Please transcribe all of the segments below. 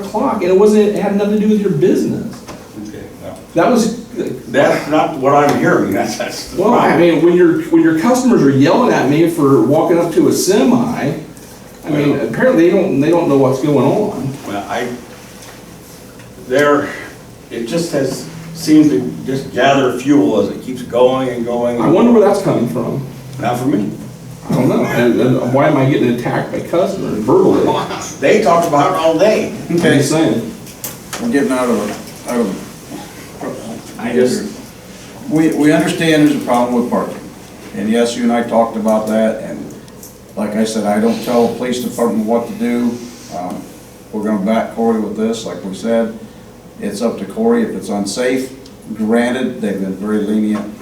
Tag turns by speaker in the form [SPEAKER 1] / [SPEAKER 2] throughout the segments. [SPEAKER 1] o'clock, and it wasn't, it had nothing to do with your business.
[SPEAKER 2] Okay, no.
[SPEAKER 1] That was,
[SPEAKER 2] That's not what I'm hearing, that's, that's the
[SPEAKER 1] well, I
[SPEAKER 2] problem.
[SPEAKER 1] mean, when your, when your customers are yelling at me for walking up to a semi, I mean, apparently they don't, they don't know what's going on.
[SPEAKER 2] Well, I, there, it just has, seems to just gather fuel as it keeps going and going.
[SPEAKER 1] I wonder where that's coming from.
[SPEAKER 2] Not for me.
[SPEAKER 1] I don't know. And, and why am I getting attacked by customers verbally? I'm
[SPEAKER 2] They talked about it all day.
[SPEAKER 1] just saying.
[SPEAKER 3] We're getting out of, out of.
[SPEAKER 2] I just-
[SPEAKER 3] We, we understand there's a problem with parking, and yes, you and I talked about that, and like I said, I don't tell the police department what to do. Um, We're gonna back Corey with this, like we said, it's up to Corey if it's unsafe. Granted, they've been very lenient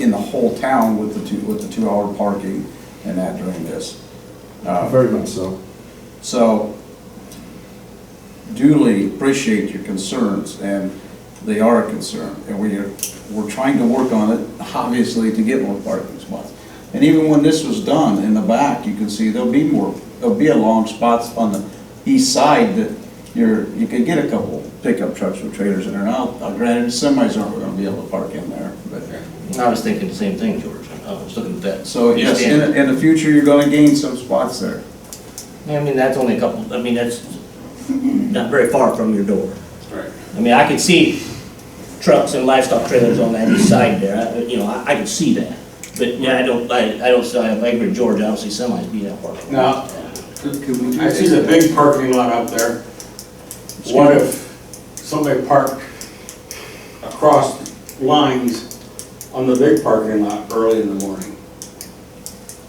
[SPEAKER 3] in the whole town with the two, with the two-hour parking and that during this. Uh,
[SPEAKER 1] Very much so.
[SPEAKER 3] so duly appreciate your concerns, and they are a concern, and we are, we're trying to work on it, obviously, to get more parking spots. And even when this was done, in the back, you can see there'll be more, there'll be a long spots on the east side that you're, you could get a couple pickup trucks with trailers in there. Now, granted, semis aren't gonna be able to park in there, but. uh,
[SPEAKER 4] I was thinking the same thing, George. I was looking at that.
[SPEAKER 3] So, yes, in, the- in the future, you're gonna gain some spots there.
[SPEAKER 4] I mean, that's only a couple, I mean, that's not very far from your door.
[SPEAKER 2] Right.
[SPEAKER 4] I mean, I could see trucks and livestock trailers on that east side there, I- you know, I, I could see that. But, yeah, I don't, I, I don't, see- I agree with George, I don't see semis being that far.
[SPEAKER 2] Now, I see the big parking lot out there. What if somebody parked across lines on the big parking lot early in the morning?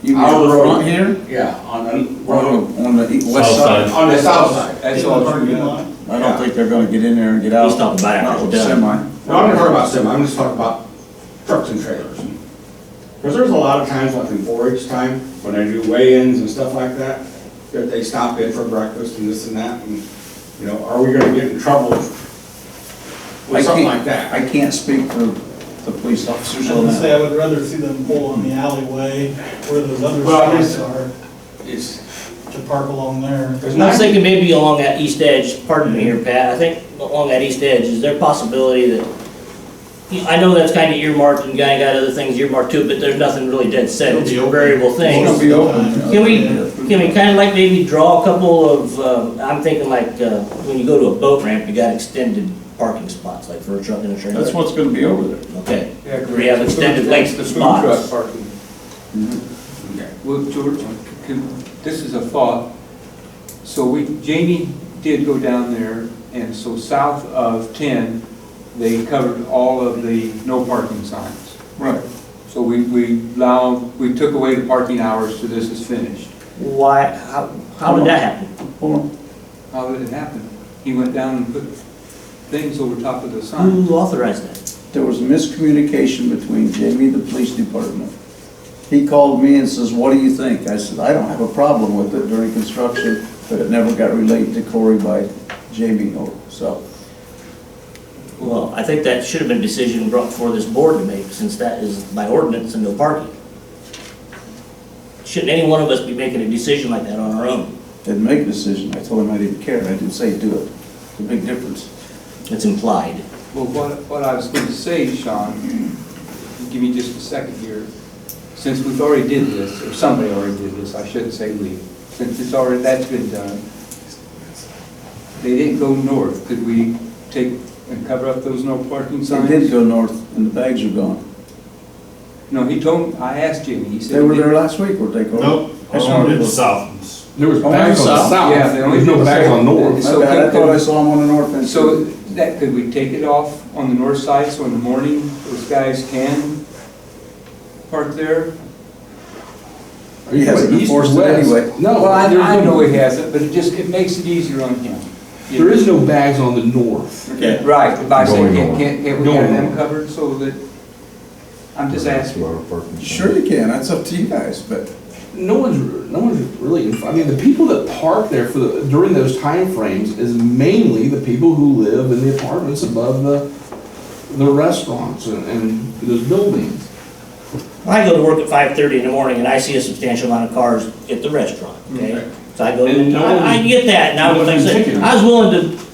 [SPEAKER 3] You mean
[SPEAKER 2] Our
[SPEAKER 3] on the
[SPEAKER 2] road.
[SPEAKER 3] front here?
[SPEAKER 2] Yeah, on the road,
[SPEAKER 3] On the, on the e- west side.
[SPEAKER 2] on the south side.
[SPEAKER 3] That's all true, yeah. I don't think they're gonna get in there and get out.
[SPEAKER 4] He's talking about
[SPEAKER 3] Not with
[SPEAKER 4] after
[SPEAKER 3] the
[SPEAKER 4] done.
[SPEAKER 3] semi.
[SPEAKER 2] No, I'm not talking about sim, I'm just talking about trucks and trailers. Because there's a lot of times, like in forage time, when I do weigh-ins and stuff like that, that they stop in for breakfast and this and that, and, you know, are we gonna get in trouble with
[SPEAKER 3] I
[SPEAKER 2] something
[SPEAKER 3] can't-
[SPEAKER 2] like that?
[SPEAKER 3] I can't speak for the police officers
[SPEAKER 5] I
[SPEAKER 3] on
[SPEAKER 5] would say
[SPEAKER 3] that.
[SPEAKER 5] I would rather see them pull in the alleyway where those other
[SPEAKER 2] Well, I
[SPEAKER 5] spots are,
[SPEAKER 2] It's,
[SPEAKER 5] to park along there.
[SPEAKER 2] there's
[SPEAKER 4] I was
[SPEAKER 2] nothing,
[SPEAKER 4] thinking maybe along that east edge, pardon me here, Pat, I think along that east edge, is there a possibility that, I know that's kind of earmarked and guy got other things earmarked too, but there's nothing really dead set, it's a variable thing.
[SPEAKER 3] It's gonna be open.
[SPEAKER 4] Can we, can we kind of like maybe draw a couple of, um, I'm thinking like, uh, when you go to a boat ramp, you got extended parking spots, like for a truck and a trailer?
[SPEAKER 3] That's what's gonna be over there.
[SPEAKER 4] Okay, we have extended length of spots.
[SPEAKER 3] Mm-hmm.
[SPEAKER 6] Well, George, can- this is a thought. So we, Jamie did go down there, and so south of 10, they covered all of the no parking signs.
[SPEAKER 3] Right.
[SPEAKER 6] So we, we allow, we took away the parking hours till this is finished.
[SPEAKER 4] Why, how, how did that happen?
[SPEAKER 3] Hold on.
[SPEAKER 6] How did it happen? He went down and put things over top of the sign.
[SPEAKER 4] Who authorized that?
[SPEAKER 3] There was miscommunication between Jamie and the police department. He called me and says, what do you think? I said, I don't have a problem with it during construction, but it never got relayed to Corey by Jamie or, so.
[SPEAKER 4] Well, I think that should have been a decision brought before this board to make, since that is by ordinance and no parking. Shouldn't any one of us be making a decision like that on our own?
[SPEAKER 3] Didn't make a decision. I told him I didn't care. I didn't say do it. It's a big difference.
[SPEAKER 4] It's implied.
[SPEAKER 6] Well, what, what I was going to say, Sean, give me just a second here. Since we've already did this, or somebody already did this, I shouldn't say we, since it's already, that's been done, they didn't go north, could we take and cover up those no parking
[SPEAKER 3] They
[SPEAKER 6] signs?
[SPEAKER 3] did go north and the bags are gone.
[SPEAKER 6] No, he told, I asked Jimmy, he said.
[SPEAKER 3] They were
[SPEAKER 6] he
[SPEAKER 3] there
[SPEAKER 6] didn't.
[SPEAKER 3] last week, were they, Corey? That's
[SPEAKER 5] Oh,
[SPEAKER 3] what it
[SPEAKER 5] it's
[SPEAKER 3] was.
[SPEAKER 5] south.
[SPEAKER 1] There was
[SPEAKER 3] Oh,
[SPEAKER 1] bags on the
[SPEAKER 3] south?
[SPEAKER 1] south.
[SPEAKER 6] Yeah, they only
[SPEAKER 1] There's no
[SPEAKER 6] did
[SPEAKER 1] bags on
[SPEAKER 6] south.
[SPEAKER 1] north.
[SPEAKER 3] My bad, I thought I saw them on the north end.
[SPEAKER 6] So that, could we take it off on the north side, so in the morning, those guys can park there?
[SPEAKER 3] He hasn't
[SPEAKER 1] East or
[SPEAKER 3] enforced it
[SPEAKER 1] west?
[SPEAKER 3] anyway.
[SPEAKER 1] No.
[SPEAKER 6] Well, I,
[SPEAKER 1] there's
[SPEAKER 6] I
[SPEAKER 1] no-
[SPEAKER 6] know he hasn't, but it just, it makes it easier on him.
[SPEAKER 1] There is no bags on the north.
[SPEAKER 3] Okay.
[SPEAKER 6] Right, but I say,
[SPEAKER 7] Going
[SPEAKER 6] can't,
[SPEAKER 7] on.
[SPEAKER 6] can't can't we
[SPEAKER 1] Going
[SPEAKER 6] have them
[SPEAKER 1] on.
[SPEAKER 6] covered so that, I'm just asking.
[SPEAKER 3] Sure you can. That's up to you guys, but
[SPEAKER 1] No one's, no one's really, I mean, the people that park there for the, during those timeframes is mainly the people who live in the apartments above the, the restaurants and, and those buildings.
[SPEAKER 4] I go to work at five thirty in the morning and I see a substantial amount of cars at the restaurant, okay? So I go,
[SPEAKER 2] And no
[SPEAKER 4] I, I
[SPEAKER 2] one-
[SPEAKER 4] get that, and I
[SPEAKER 2] no
[SPEAKER 4] was, like I
[SPEAKER 2] one's
[SPEAKER 4] said,
[SPEAKER 2] picking on
[SPEAKER 4] I was willing to